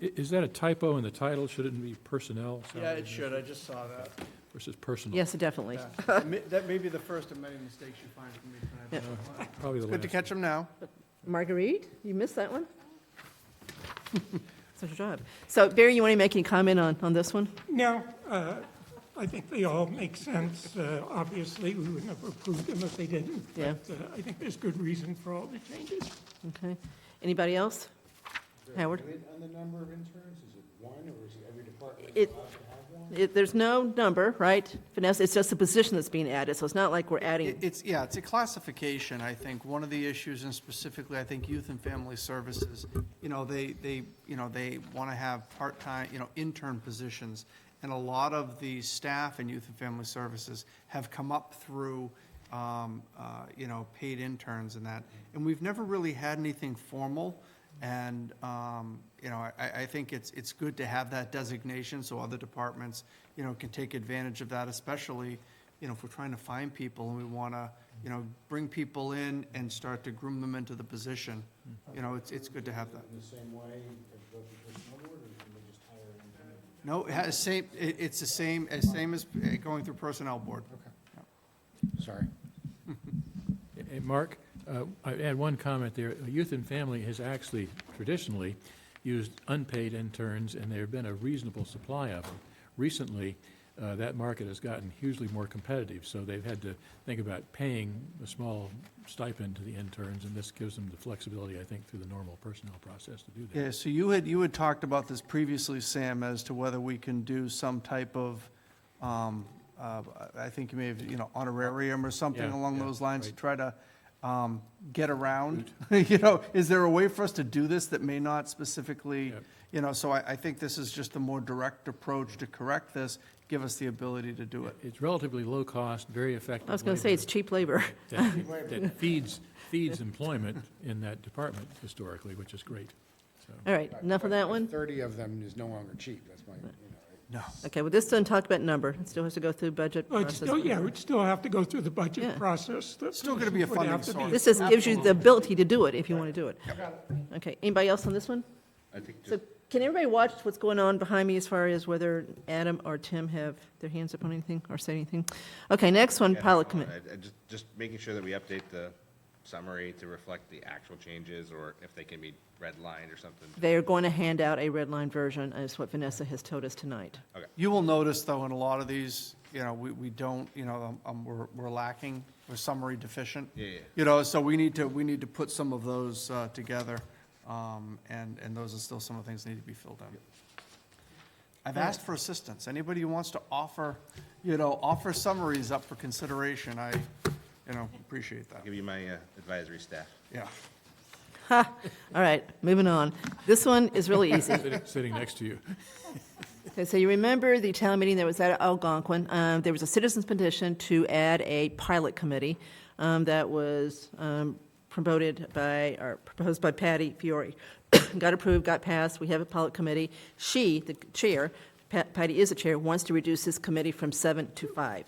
I- Is that a typo in the title? Should it be personnel? Yeah, salary it should, I just saw that. Versus personal? Yes, definitely. Yeah. Ma- That may be the first of many mistakes you find from me tonight. Probably the Good to last. catch them now. Marguerite, you missed that one? It's your job. So Barry, you want to make any comment on, on this one? No, uh, I think they all make sense. Uh, Obviously, we would never approve them if they didn't. Yeah. But uh, I think there's good reason for all the changes. Okay. Anybody else? Howard? On the number of interns, is it one, or is it every department It- allowed to have one? It, there's no number, right, Vanessa? It's just the position that's being added, so it's not like we're It- adding, It's, yeah, it's a classification, I think. One of the issues, and specifically, I think Youth and Family Services, you know, they, they, you know, they want to have part-time, you know, intern positions. And a lot of the staff in Youth and Family Services have come up through, um, uh, you know, paid interns and that. And we've never really had anything formal. And, um, you know, I, I think it's, it's good to have that designation so other departments, you know, can take advantage of that, especially, you know, if we're trying to find people and we want to, you know, bring people in and start to groom them into the position, you know, it's, it's good to have that. In the same way as both the personnel board, or can they just hire an intern? No, it has same, it, it's the same, as same as uh, going through personnel board. Sorry. Hey, Mark, uh, I add one comment there. Youth and Family has actually traditionally used unpaid interns, and there've been a reasonable supply of them. Recently, uh, that market has gotten hugely more competitive, so they've had to think about paying a small stipend to the interns, and this gives them the flexibility, I think, through the normal personnel process to do that. Yeah, so you had, you had talked about this previously, Sam, as to whether we can do some type of, um, uh, I think you may have, you know, honorarium or something Yeah, along yeah, those lines to right. try to, um, get around. You know, is there a way for us to do this that may not specifically, Yep. you know, so I, I think this is just a more direct approach to correct this, give us the ability to do it. It's relatively low cost, very effective. I was going to say it's labor cheap labor. That that feeds, feeds employment in that department historically, which is great, so. All right, enough of that one? Thirty of them is no longer cheap, that's my, you know. No. Okay, well, this doesn't talk about number. It still has to go through budget Well, it's process. still, yeah, we'd still have to go through the budget Yeah. process. The Still gonna be a position would funding have to be source. This just gives you the ability to do it if you want to do it. Okay, anybody else on this one? I think So just, can everybody watch what's going on behind me as far as whether Adam or Tim have their hands up on anything or said anything? Okay, next one, pilot commit. I- I just, just making sure that we update the summary to reflect the actual changes, or if they can be redlined or something. They are going to hand out a red line version, is what Vanessa has told us tonight. You will notice, though, in a lot of these, you know, we, we don't, you know, um, we're, we're lacking, we're summary deficient. Yeah, yeah. You know, so we need to, we need to put some of those uh, together, um, and, and those are still some of the things that need to be filled in. I've asked for assistance. Anybody who wants to offer, you know, offer summaries up for consideration, I, you know, appreciate that. Give you my uh, advisory staff. Yeah. All right, moving on. This one is really easy. Sitting- Sitting next to you. Okay, so you remember the town meeting that was at Algonquin, um, there was a citizens petition to add a pilot committee, um, that was, um, promoted by, or proposed by Patty Fiore. Got approved, got passed, we have a pilot committee. She, the chair, Pa- Patty is the chair, wants to reduce this committee from seven to five.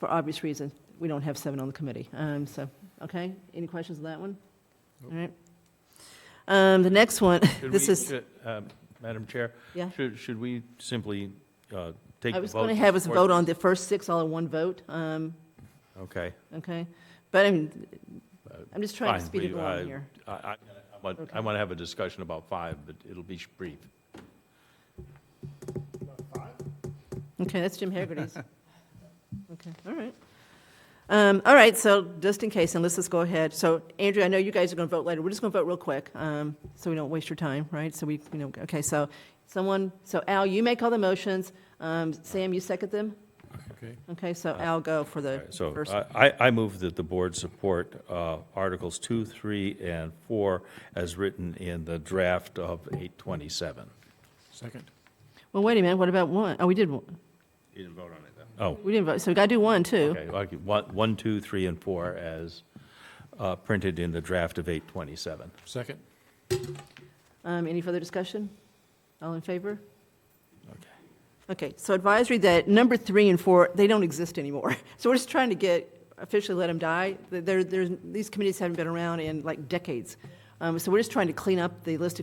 For obvious reasons, we don't have seven on the committee, um, so, okay, any questions on that one? All right. Um, the next one, Should this we- is. should, uh, Madam Chair? Yeah. Should, should we simply uh, take I the was vote going to have us support vote this? on the first six all in one vote, um, Okay. okay? But I'm, I'm just trying to fine. speed it We- uh, I- along here. I, I- I want, I Okay. want to have a discussion about five, but it'll be sh- brief. Okay, that's Jim Haggerty's. Okay, all right. Um, All right, so just in case, and let's just go ahead. So Andrew, I know you guys are going to vote later. We're just going to vote real quick, um, so we don't waste your time, right? So we, you know, okay, so someone, so Al, you make all the motions. Um, Sam, you second them? Okay, Okay, so Al, go for the Uh, So uh, first. I, I- I move that the board support uh, Articles 2, 3, and 4 as written in the draft of 827. second. Well, wait a minute, what about one? Oh, we did, one. You didn't vote on it, though. Oh, we didn't vote, so we got to do one, too. okay, okay, one, one, two, three, and 4 as uh, printed in the draft of 827. Second? Um, Any further discussion? All in favor? Okay. Okay, so advisory that number three and four, they don't exist anymore. So we're just trying to get, officially let them die. There, there's, these committees haven't been around in like decades. Um, So we're just trying to clean up the list of